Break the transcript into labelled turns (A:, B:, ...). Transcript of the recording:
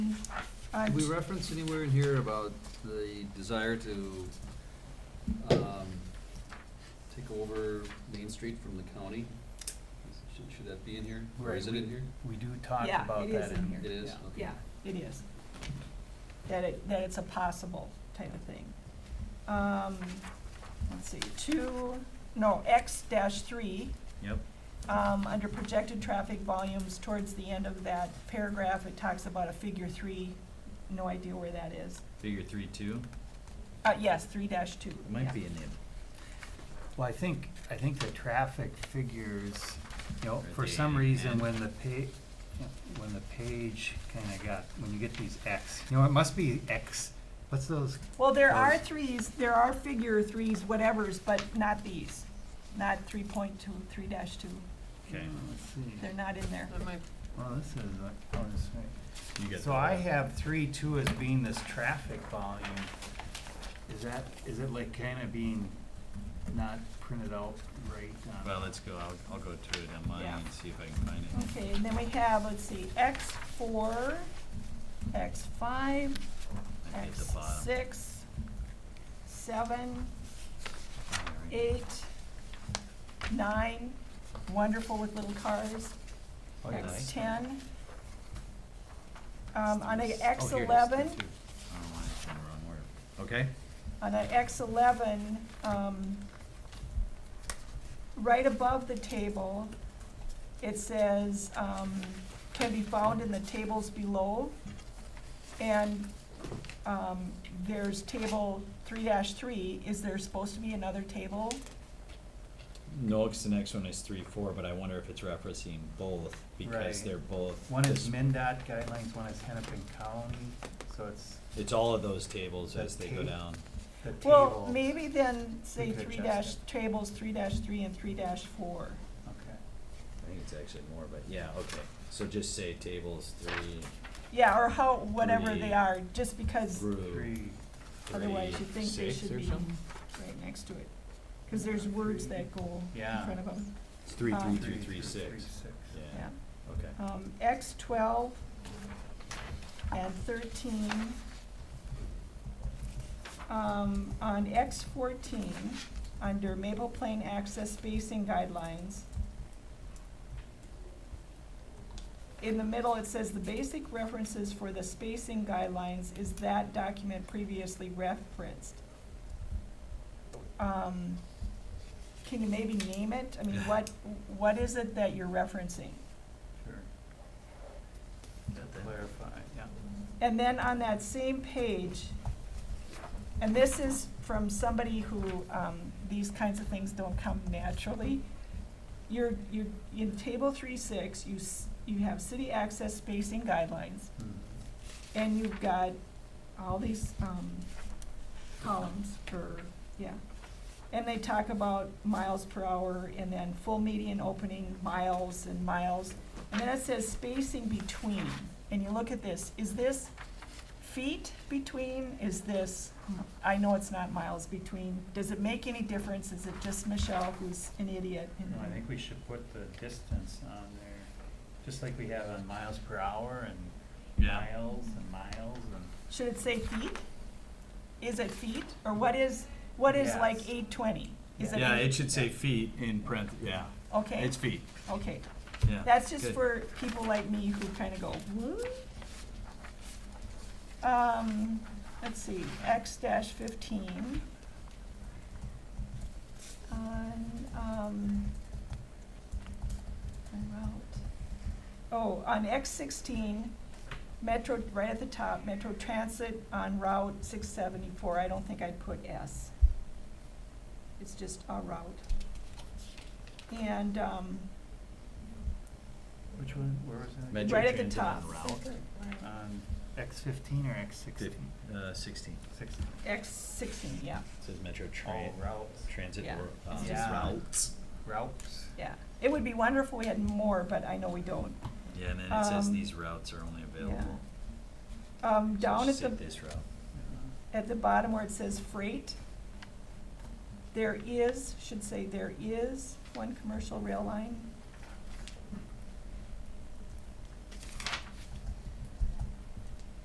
A: I-
B: Did we reference anywhere in here about the desire to, um, take over Main Street from the county? Should, should that be in here, or is it
C: Right,
B: in here?
C: We do talk
A: Yeah,
C: about
A: it is
C: that.
A: in here.
B: It is,
C: yeah.
B: okay.
A: Yeah, it is. That it, that it's a possible type of thing. Um, let's see, two, no, X dash three,
C: Yep.
A: um, under projected traffic volumes, towards the end of that paragraph, it talks about a figure three, no idea where that is.
D: Figure three two,
A: Uh, yes, three dash two.
D: it might be in the,
C: Well, I think, I think the traffic figures, you know,
D: Are
C: for
D: they
C: some reason,
D: in?
C: when the pa, when the page kinda got, when you get these X, you know, it must be X, what's those?
A: Well, there are
C: Those-
A: threes, there are figure threes, whatevers, but not these, not three point two, three dash two,
D: okay,
A: Mm.
C: Uh, Let's see,
A: they're not in there.
C: well, this is, like- oh, this way.
D: you got.
C: So
D: the-
C: I have three, two as being this traffic volume. Is that, is it like kinda being not printed out right on?
D: Well, let's go, I'll, I'll go through it on mine
A: Yeah.
D: and see if I can find it.
A: Okay, and then we have, let's see, X four, X five,
D: Might be at
A: X
D: the bottom.
A: six, seven,
D: Yeah, right.
A: eight, nine, wonderful with little cars,
C: Oh, you like that?
A: X ten. Um, on a
D: Nice.
A: X
D: Oh, here it is,
A: eleven,
D: three two. I don't know why it's in the wrong order. Okay,
A: on a X eleven, um, right above the table, it says, um, can be found in the tables below. And, um, there's table three three, is there supposed to be another table?
D: no, 'cause the next one is three four, but I wonder if it's referencing both, because
C: Right.
D: they're both.
C: One is
D: this-
C: MinDOT guidelines, one is Hennepin County, so it's
D: It's all of those tables as
C: The
D: they go
C: tape.
D: down.
C: the table.
A: Well, maybe then say
C: We could
A: three dash,
C: adjust it.
A: tables three dash three and three dash four.
C: Okay.
D: I think it's actually more, but yeah, okay, so just say tables three,
A: Yeah, or how, whatever
D: Three.
A: they are, just because
D: through
C: Three,
A: otherwise you
D: three,
A: think they
D: six
A: should
D: or
A: be
D: something?
A: right next to it. Cause there's words that go in
C: Yeah.
A: front of them,
D: It's three,
A: Um,
D: three,
C: three,
D: three, three,
C: Three,
D: six,
C: six.
D: yeah,
A: yeah.
D: okay.
A: Um, X twelve and thirteen. Um, on X fourteen, under Maple Plain access spacing guidelines. In the middle, it says the basic references for the spacing guidelines is that document previously referenced. Um, can you maybe name it? I mean, what, what is it that you're referencing?
C: Sure,
D: Got that?
C: clarify, yeah.
A: And then on that same page, and this is from somebody who, um, these kinds of things don't come naturally. You're, you're, in table three six, you, s- you have city access spacing guidelines,
C: Mhm.
A: Mm-hmm. and you've got all these, um, columns for, yeah. And they talk about miles per hour, and then full median opening, miles and miles. And then it says spacing between, and you look at this, is this feet between, is this, I know it's not miles between, does it make any difference, is it just Michelle who's an idiot? and-
C: No, I think we should put the distance on there, just like we have on miles per hour and
D: Yeah.
C: miles and miles and.
A: Should it say feet? Is it feet, or what is, what is like
C: Yes.
A: eight twenty? Is it
D: Yeah,
A: eight-
D: it should say feet in print, yeah,
A: Okay,
D: it's feet,
A: okay,
D: yeah.
A: that's just
D: good.
A: for people like me who kinda go, what? Um, let's see, X dash fifteen. On, um, my route. Oh, on X sixteen, Metro, right at the top, Metro Transit on Route six seventy-four, I don't think I'd put S. It's just a route. And, um,
C: Which one, where was that?
D: Metro
A: right at the
D: Transit on
A: top.
D: route.
C: On X fifteen or X sixteen?
D: Uh, sixteen,
C: Sixteen.
A: X sixteen, yeah,
D: It says Metro
C: Oh,
D: Tran-
C: routes,
D: Transit
A: Yeah.
D: or, uh,
A: It's
C: just-
D: routes.
C: routes.
A: yeah. It would be wonderful if we had more, but I know we don't.
D: Yeah, and then it says
A: Um,
D: these routes are only available.
A: Um,
D: So
A: down at
D: just
A: the,
D: say This route.
C: yeah.
A: at the bottom where it says freight, there is, should say there is one commercial rail line